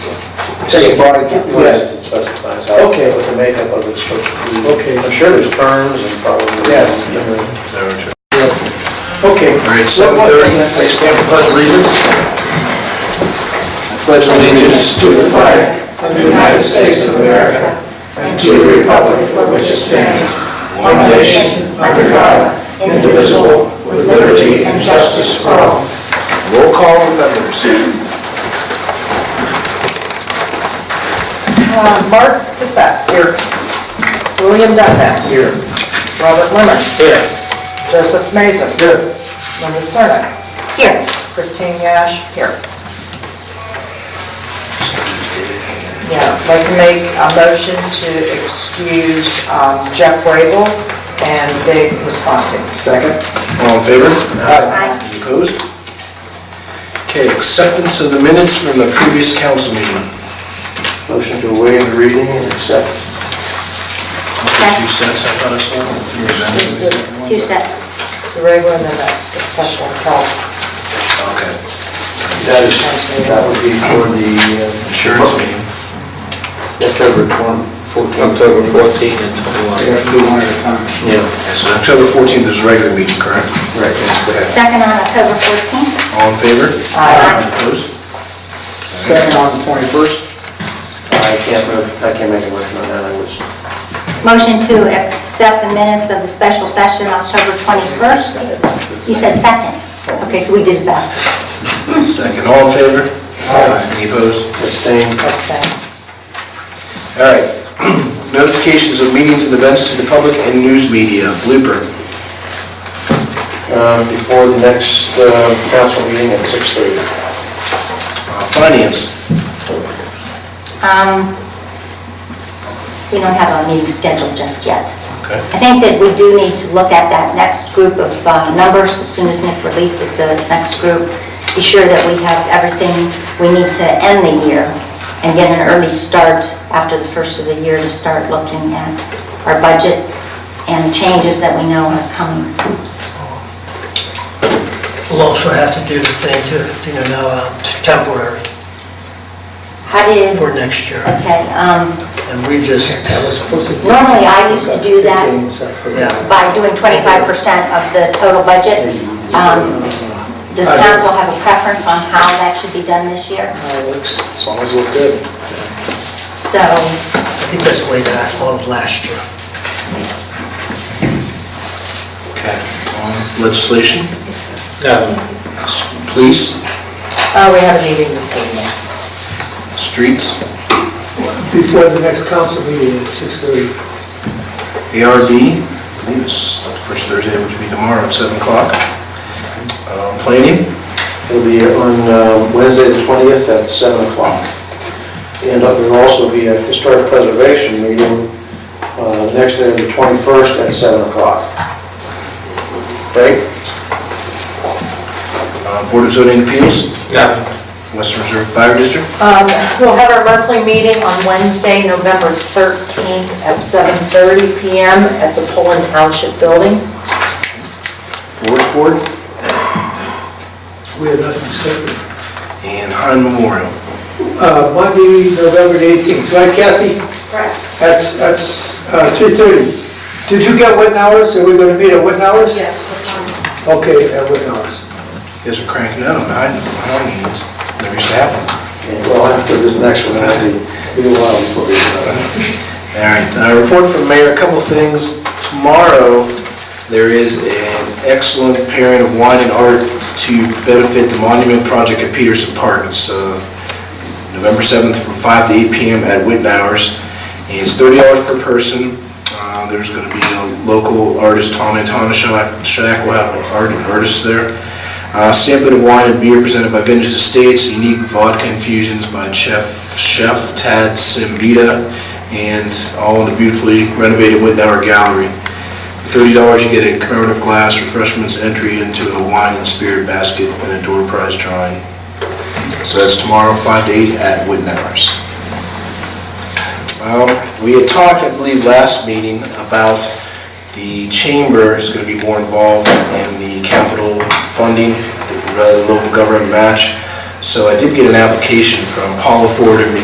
Just body count. Yes, it specifies how, what Okay. the makeup of it's supposed to be. Okay. I'm sure there's terms and probably. Yeah. Yeah. Okay. All right, 7:30, I stand for pledge allegiance. I pledge allegiance to the flag of the United States of America and to the republic for which it stands, one nation, under God, indivisible, with liberty and justice for all. Roll call of members. Uh, Mark Cassatt here. William Dunlap here. Robert Limmer. Here. Joseph Mason. Here. Linda Serna. Here. Christine Yash here. Yeah, I'd like to make a motion to excuse um, Jeff Rabel and Dave Responti. Second? All in favor? Aye. Opposed? Okay, acceptance of the minutes from the previous council meeting. Motion to waive the reading and accept. Two sets, I thought I saw. Two sets. The Rabel and then that exceptional call. Okay, That is, that would be for the uh, insurance meeting. October 14th. October 14 and 21. do one at a time. Yeah, Okay, So October 14th is a regular meeting, correct? right. Okay. Second on October 14th. All in favor? Aye. Opposed? Second on the 21st? I can't move, I can't make a motion on that, I was, Motion to accept the minutes of the special session October 21st. You said second. Okay, so we did it back. Second, all in favor? Aye. Any opposed? abstain. Abstain. All right. Notifications of meetings and events to the public and news media, blooper. Um, Before the next uh, council meeting at 6:30. Uh, Finance, Um, We don't have a meeting scheduled just yet. Okay. I think that we do need to look at that next group of uh, numbers as soon as Nick releases the next group. Be sure that we have everything we need to end the year and get an early start after the first of the year to start looking at our budget and changes that we know are coming. We'll also have to do the thing to, you know, now uh, t- temporary How did, for next year. okay, um, And we just, normally I used to do that yeah, by doing 25% of the total budget. Um, Does council have a preference on how that should be done this year? As long as we're good. So, I think that's the way that I followed last year. okay. On Legislation, No, s- police, Uh, We have a meeting this evening. streets, before the next council meeting at 6:30. ARB, I believe it's the first Thursday, which will be tomorrow at 7 o'clock. Uh, Planning, It'll be on uh, Wednesday, the 20th, at 7 o'clock. And there'll also be a historic preservation meeting uh, next day, the 21st, at 7 o'clock. Right? uh, Board of Zoning Appeals, no. Western Reserve Fire District, Um, We'll have our monthly meeting on Wednesday, November 13th at 7:30 PM at the Poland Township Building. Forest Board, We have nothing scheduled. and Hine Memorial. Uh, Monday, November the 18th, right Kathy? Correct. That's, that's uh, 3:30. Did you get Witten hours? Are we going to meet at Witten hours? Yes. Okay, at Witten hours. You guys are cranking out on the Hine, Hine meetings. Never used to have them. And well, after this next one, it'll be, it'll be a while before we... uh, All right, uh, report from mayor, a couple things. Tomorrow, there is an excellent pairing of wine and art to benefit the monument project at Peterson Park. It's uh, November 7th from 5 to 8 p.m. at Witten Hours. And it's $30 per person. Uh, There's going to be a local artist, Tommy Tonashak, Shack will have an art- an artist there. Uh, Sampling of wine and beer presented by Vintage Estates, unique vodka infusions by Chef Chef Tad Simbita, and all in a beautifully renovated Witten Hour Gallery. For $30, you get a commemorative glass, refreshments, entry into a wine and spirit basket, and a door prize drawing. So that's tomorrow, 5 to 8 at Witten Hours. Well, we had talked, I believe, last meeting about the chamber is going to be more involved in the capital funding, rather than local government match. So I did get an application from Paula Ford and me